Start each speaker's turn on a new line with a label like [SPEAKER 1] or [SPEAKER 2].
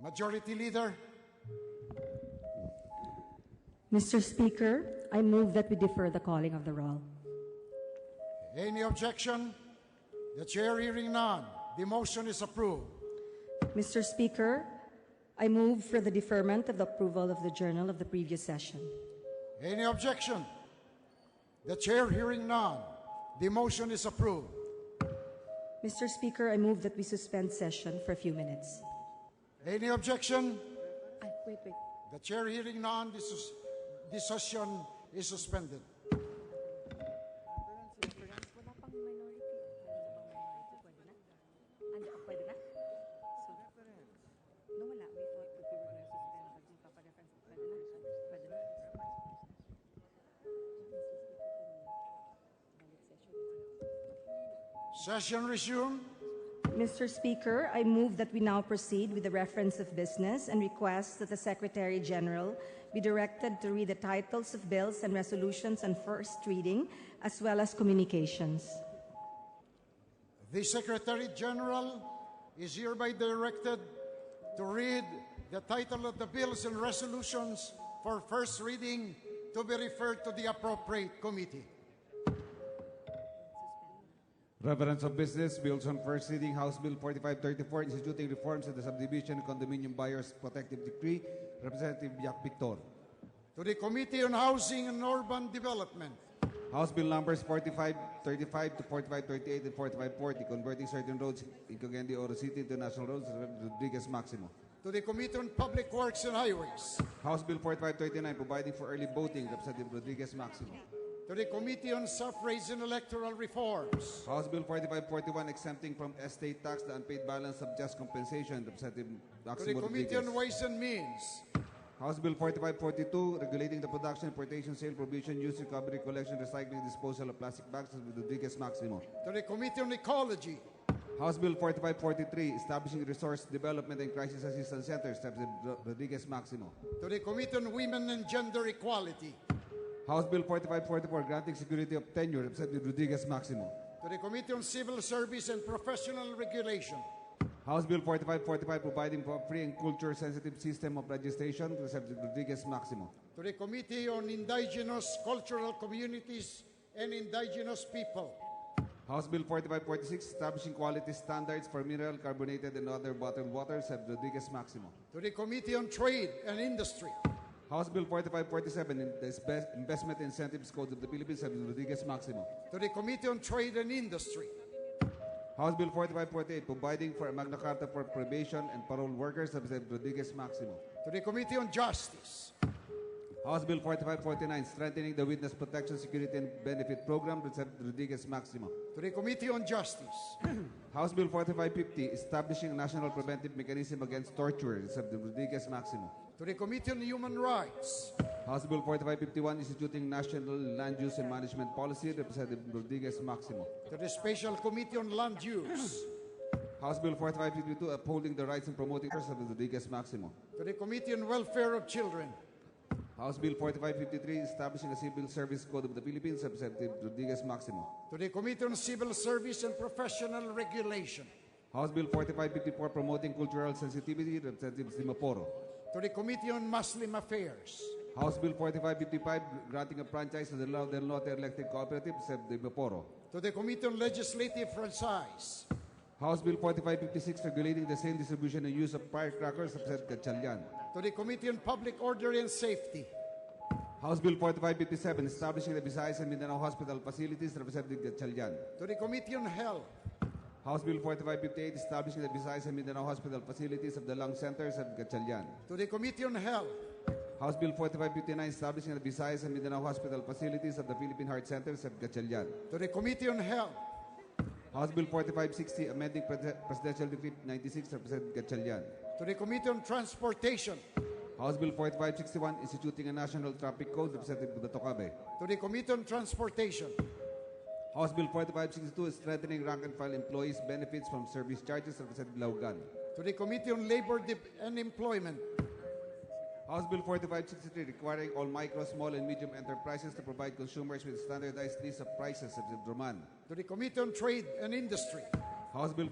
[SPEAKER 1] Majority Leader,
[SPEAKER 2] Mr. Speaker, I move that we defer the calling of the roll.
[SPEAKER 1] any objection? The chair hearing none, the motion is approved.
[SPEAKER 2] Mr. Speaker, I move for the deferment of the approval of the journal of the previous session.
[SPEAKER 1] Any objection? The chair hearing none, the motion is approved.
[SPEAKER 2] Mr. Speaker, I move that we suspend session for a few minutes.
[SPEAKER 1] Any objection?
[SPEAKER 2] Ay, wait, wait.
[SPEAKER 1] The chair hearing none, the, sus- the session is suspended. Session resumed.
[SPEAKER 2] Mr. Speaker, I move that we now proceed with the reference of business and request that the Secretary General be directed to read the titles of bills and resolutions on first reading as well as communications.
[SPEAKER 1] The Secretary General is hereby directed to read the title of the bills and resolutions for first reading to be referred to the appropriate committee.
[SPEAKER 3] Reference of Business Bills on First Reading House Bill 4534 Instituting Reforms to the Subdivision Condominium Buyers Protective Decree Representative Jack Victor
[SPEAKER 1] To the Committee on Housing and Urban Development,
[SPEAKER 3] House Bill numbers 4535 to 4538 and 4540 Converting certain roads in Cagayan Oro City to national roads Representative Rodriguez Maximo
[SPEAKER 1] to the Committee on Public Works and Highways,
[SPEAKER 3] House Bill 4539 Providing for Early Voting Representative Rodriguez Maximo
[SPEAKER 1] to the Committee on Suffrage and Electoral Reforms,
[SPEAKER 3] House Bill 4541 Exempting from Estate Tax the Unpaid Balance of Just Compensation Representative
[SPEAKER 1] to the
[SPEAKER 3] Maximo
[SPEAKER 1] Committee
[SPEAKER 3] Rodriguez
[SPEAKER 1] on Ways and Means,
[SPEAKER 3] House Bill 4542, regulating the production, importation, sale, provision, use, recovery, collection, recycling, disposal of plastic bags with Rodriguez Maximo.
[SPEAKER 1] to the Committee on Ecology,
[SPEAKER 3] House Bill 4543, establishing resource development and crisis assistance centers, steps in Ro- Rodriguez Maximo.
[SPEAKER 1] to the Committee on Women and Gender Equality,
[SPEAKER 3] House Bill 4544, granting security of tenure, Representative Rodriguez Maximo.
[SPEAKER 1] to the Committee on Civil Service and Professional Regulation,
[SPEAKER 3] House Bill 4545, providing for free and culture-sensitive system of registration, Representative Rodriguez Maximo.
[SPEAKER 1] to the Committee on Indigenous Cultural Communities and Indigenous People,
[SPEAKER 3] House Bill 4546, establishing quality standards for mineral, carbonated, and other bottled waters, Representative Rodriguez Maximo.
[SPEAKER 1] to the Committee on Trade and Industry,
[SPEAKER 3] House Bill 4547, in the Spe- Investment Incentives Code of the Philippines, Representative Rodriguez Maximo.
[SPEAKER 1] to the Committee on Trade and Industry,
[SPEAKER 3] House Bill 4548, providing for a Magna Carta for probation and parole workers, Representative Rodriguez Maximo.
[SPEAKER 1] to the Committee on Justice,
[SPEAKER 3] House Bill 4549, strengthening the witness protection, security, and benefit program, Representative Rodriguez Maximo.
[SPEAKER 1] to the Committee on Justice,
[SPEAKER 3] House Bill 4550, establishing a national preventive mechanism against torture, Representative Rodriguez Maximo.
[SPEAKER 1] to the Committee on Human Rights,
[SPEAKER 3] House Bill 4551, instituting national land use and management policy, Representative Rodriguez Maximo.
[SPEAKER 1] to the Special Committee on Land Use,
[SPEAKER 3] House Bill 4552 upholding the rights and promoting persons of Rodriguez Maximo.
[SPEAKER 1] to the Committee on Welfare of Children,
[SPEAKER 3] House Bill 4553 establishing a civil service code of the Philippines, Representative Rodriguez Maximo.
[SPEAKER 1] to the Committee on Civil Service and Professional Regulation,
[SPEAKER 3] House Bill 4554 promoting cultural sensitivity, Representative Simaporo.
[SPEAKER 1] to the Committee on Muslim Affairs,
[SPEAKER 3] House Bill 4555 granting a franchise to the Laude and Lotte Electric Cooperative, Representative Maporo.
[SPEAKER 1] to the Committee on Legislative Franchise,
[SPEAKER 3] House Bill 4556 regulating the sale, distribution, and use of firecrackers, Representative Gatchalian.
[SPEAKER 1] to the Committee on Public Order and Safety,
[SPEAKER 3] House Bill 4557 establishing the Visayas and Mindanao Hospital facilities, Representative Gatchalian.
[SPEAKER 1] to the Committee on Health,
[SPEAKER 3] House Bill 4558 establishing the Visayas and Mindanao Hospital facilities of the lung centers at Gatchalian.
[SPEAKER 1] to the Committee on Health,
[SPEAKER 3] House Bill 4559 establishing the Visayas and Mindanao Hospital facilities of the Philippine Heart Centers at Gatchalian.
[SPEAKER 1] to the Committee on Health,
[SPEAKER 3] House Bill 4560 amending Pres- Presidential Decree 96 Representative Gatchalian.
[SPEAKER 1] to the Committee on Transportation,
[SPEAKER 3] House Bill 4561 instituting a national traffic code Representative Batokabe.
[SPEAKER 1] to the Committee on Transportation,
[SPEAKER 3] House Bill 4562 strengthening rank and file employees benefits from service charges Representative Laugan.
[SPEAKER 1] to the Committee on Labor Dep- and Employment,
[SPEAKER 3] House Bill 4563 requiring all micro, small, and medium enterprises to provide consumers with standardized list of prices of Roman.
[SPEAKER 1] to the Committee on Trade and Industry,
[SPEAKER 3] House Bill